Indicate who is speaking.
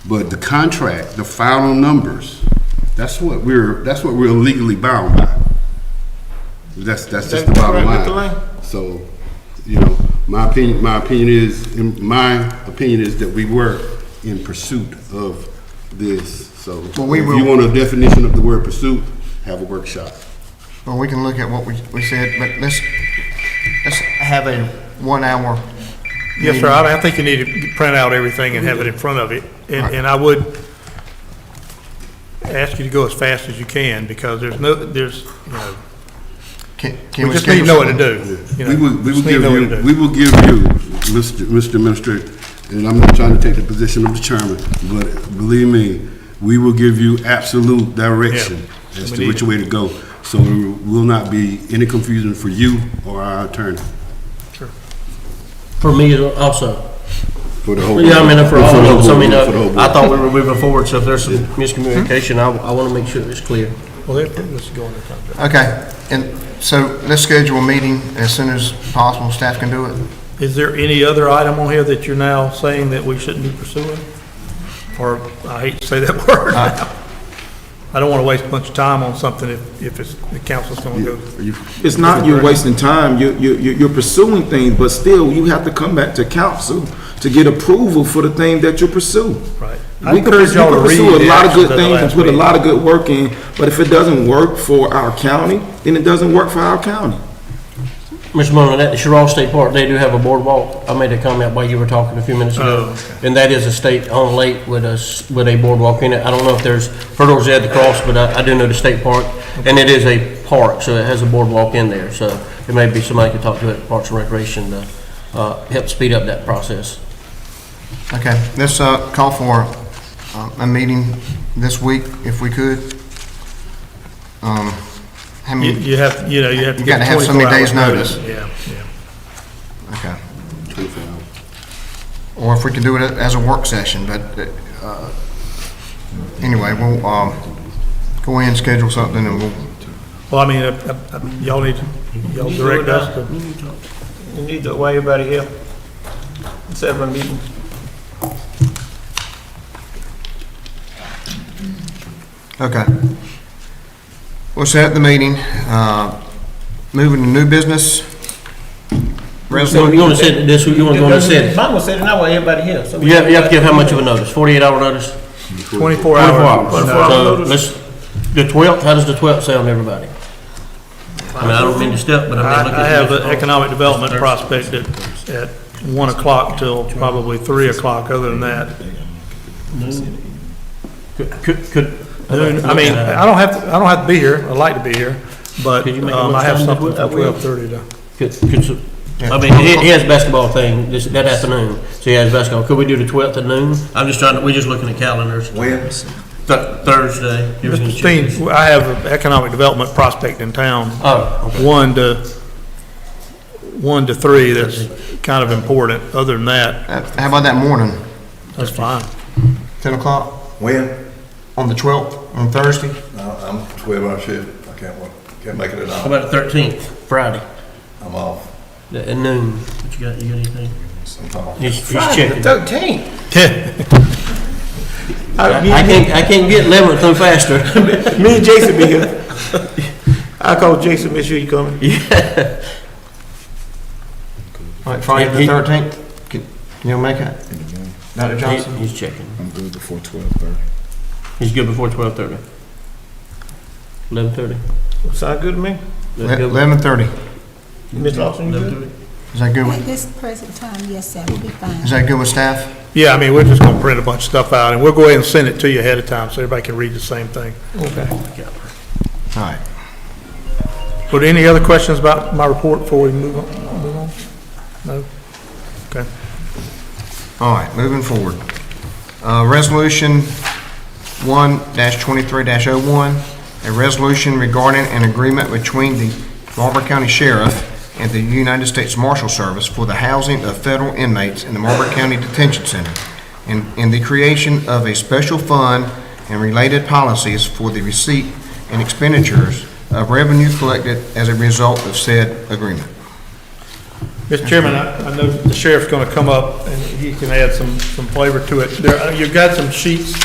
Speaker 1: But the contract, the final numbers, that's what we're, that's what we're legally bound by. That's, that's just the
Speaker 2: That's
Speaker 1: bottom
Speaker 2: correct, Mr.
Speaker 1: line.
Speaker 2: Lane.
Speaker 1: So, you know, my opinion, my opinion is, in my opinion is that we were in pursuit of this. So if
Speaker 3: Well, we will-
Speaker 1: you want a definition of the word pursuit, have a workshop.
Speaker 3: Well, we can look at what we, we said, but let's, let's have a one-hour.
Speaker 2: Yes,
Speaker 3: meeting.
Speaker 2: sir, I I think you need to print out everything and have it in front of it. And, and I would ask you to go as fast as you can, because there's no, there's, you know,
Speaker 3: Can, can
Speaker 2: we
Speaker 3: we
Speaker 2: just need to
Speaker 3: schedule
Speaker 2: know what to
Speaker 3: something?
Speaker 2: do. you
Speaker 1: We
Speaker 2: know,
Speaker 1: will, we will
Speaker 2: just need to
Speaker 1: give
Speaker 2: know what
Speaker 1: you,
Speaker 2: to do.
Speaker 1: we will give you, Mr. Mr. Administrator, and I'm not trying to take the position of the chairman, but believe me, we will give you absolute direction
Speaker 2: Yeah.
Speaker 1: as
Speaker 2: We
Speaker 1: to which
Speaker 2: need
Speaker 1: way to go. So there will not be any confusion for you or our attorney.
Speaker 4: For me also.
Speaker 1: For the whole.
Speaker 4: Yeah, I mean, for all of us, I mean,
Speaker 1: For the whole
Speaker 4: uh, I
Speaker 1: board.
Speaker 4: thought we were moving forward, so if there's some miscommunication, I, I want to make sure it's clear.
Speaker 2: Well, let- let's go on the contract.
Speaker 3: Okay, and so let's schedule a meeting as soon as possible, staff can do it.
Speaker 2: Is there any other item on here that you're now saying that we shouldn't be pursuing? Or, I hate to say that word now. I don't want to waste a bunch of time on something if, if it's, the council's going to go.
Speaker 1: Are you-
Speaker 5: It's not you're wasting time, you, you, you- you're pursuing things, but still, you have to come back to council to get approval for the thing that you pursue.
Speaker 2: Right. I
Speaker 5: We could,
Speaker 2: encourage
Speaker 5: you
Speaker 2: y'all to
Speaker 5: could pursue
Speaker 2: read
Speaker 5: a
Speaker 2: the
Speaker 5: lot of
Speaker 2: actions
Speaker 5: good
Speaker 2: of the
Speaker 5: things and
Speaker 2: last
Speaker 5: put a
Speaker 2: meeting.
Speaker 5: lot of good work in, but if it doesn't work for our county, then it doesn't work for our county.
Speaker 4: Mr. Mullin, at the Sherrall State Park, they do have a boardwalk. I made a comment while you were talking a few minutes ago. And that is a state-owned lake with a, s- with a boardwalk in it. I don't know if there's hurdles they had to cross, but I, I do know the state park. And it is a park, so it has a boardwalk in there, so it may be somebody could talk to it, Parks and Recreation, to, uh, help speed up that process.
Speaker 3: Okay, let's, uh, call for, uh, a meeting this week if we could. Um, how
Speaker 2: You,
Speaker 3: many,
Speaker 2: you have, you know, you have to
Speaker 3: Mm. You
Speaker 2: get
Speaker 3: gotta have so
Speaker 2: 24
Speaker 3: many
Speaker 2: hours
Speaker 3: days'
Speaker 2: notice. Yeah, yeah.
Speaker 3: okay,
Speaker 1: 24 hours.
Speaker 3: or if we can do it as a work session, but, uh, anyway, we'll, um, go in, schedule something and we'll,
Speaker 2: Well, I mean, uh, uh, uh, y'all need, y'all direct us to,
Speaker 6: You need to weigh everybody here. Instead of a meeting.
Speaker 3: Okay. We'll set the meeting. Uh, Moving to new business.
Speaker 4: So
Speaker 3: Resolution,
Speaker 4: you want to set this, you want to go and set it?
Speaker 6: Mine was said, and I weigh everybody here. So we-
Speaker 4: You have, you have to give how much of a notice? Forty-eight hour notice?
Speaker 2: 24
Speaker 4: Twenty-four
Speaker 2: hours. No,
Speaker 4: hours. So let's, the twelfth, how does the twelfth sound to everybody? I mean, I don't mean to step, but I mean, look
Speaker 2: I I
Speaker 4: at
Speaker 2: have
Speaker 4: the
Speaker 2: an economic development prospect at, at 1 o'clock till probably 3 o'clock, other than that.
Speaker 4: Could, could.
Speaker 2: Noon, I mean, uh, I don't have, to- I don't have to be here, I'd like to be here, but
Speaker 4: Could you make a
Speaker 2: um, I have something
Speaker 4: lunchtime that
Speaker 2: from
Speaker 4: we-
Speaker 2: 12:30 to.
Speaker 4: Could, could, s- I mean, he, he has basketball thing this, that afternoon, so he has basketball. Could we do the twelfth at noon? I'm just trying to, we're just looking at calendars. When? Thursday. You were gonna
Speaker 2: Mr.
Speaker 4: check.
Speaker 2: Steen, I have an economic development prospect in town,
Speaker 4: Oh, okay.
Speaker 2: 1 to, 1 to 3, that's kind of important. Other than that,
Speaker 3: uh, how about that morning?
Speaker 2: that's fine.
Speaker 3: 10 o'clock
Speaker 7: When?
Speaker 3: on the 12th, on Thursday?
Speaker 7: I- I'm twelve hour shift, I can't work, can't make it at
Speaker 4: How
Speaker 7: all,
Speaker 4: about the thirteenth, Friday,
Speaker 7: I'm off,
Speaker 4: at at noon? What you got, you got anything?
Speaker 7: I'm off.
Speaker 4: He's, he's checking.
Speaker 6: Thirteen.
Speaker 4: I can't, I can't get Leverett no faster.
Speaker 6: Me and Jason be here. I call Jason, make sure you coming.
Speaker 3: All right, Friday
Speaker 4: He-
Speaker 3: the 13th? Can can you make it? Dr. Johnson?
Speaker 4: He- He's checking.
Speaker 7: I'm good before twelve thirty.
Speaker 4: He's good before twelve thirty. Eleven thirty?
Speaker 6: Sound good to me?
Speaker 3: Le- 11:30.
Speaker 6: Mr. Lawson, you good?
Speaker 3: Is that good
Speaker 8: At
Speaker 3: with,
Speaker 8: this present time, yes, that would be fine.
Speaker 3: is that good with staff?
Speaker 2: Yeah, I mean, we're just gonna print a bunch of stuff out, and we'll go ahead and send it to you ahead of time, so everybody can read the same thing.
Speaker 3: All right.
Speaker 2: But any other questions about my report before we move on? move on? No? Okay.
Speaker 3: All right, moving forward. Uh, Resolution 1-23-01, a resolution regarding an agreement between the Marlboro County Sheriff and the United States Marshal Service for the housing of federal inmates in the Marlboro County Detention Center and and the creation of a special fund and related policies for the receipt and expenditures of revenue collected as a result of said agreement.
Speaker 2: Mr. Chairman, I I know the sheriff's going to come up and he can add some some flavor to it. There, You've got some sheets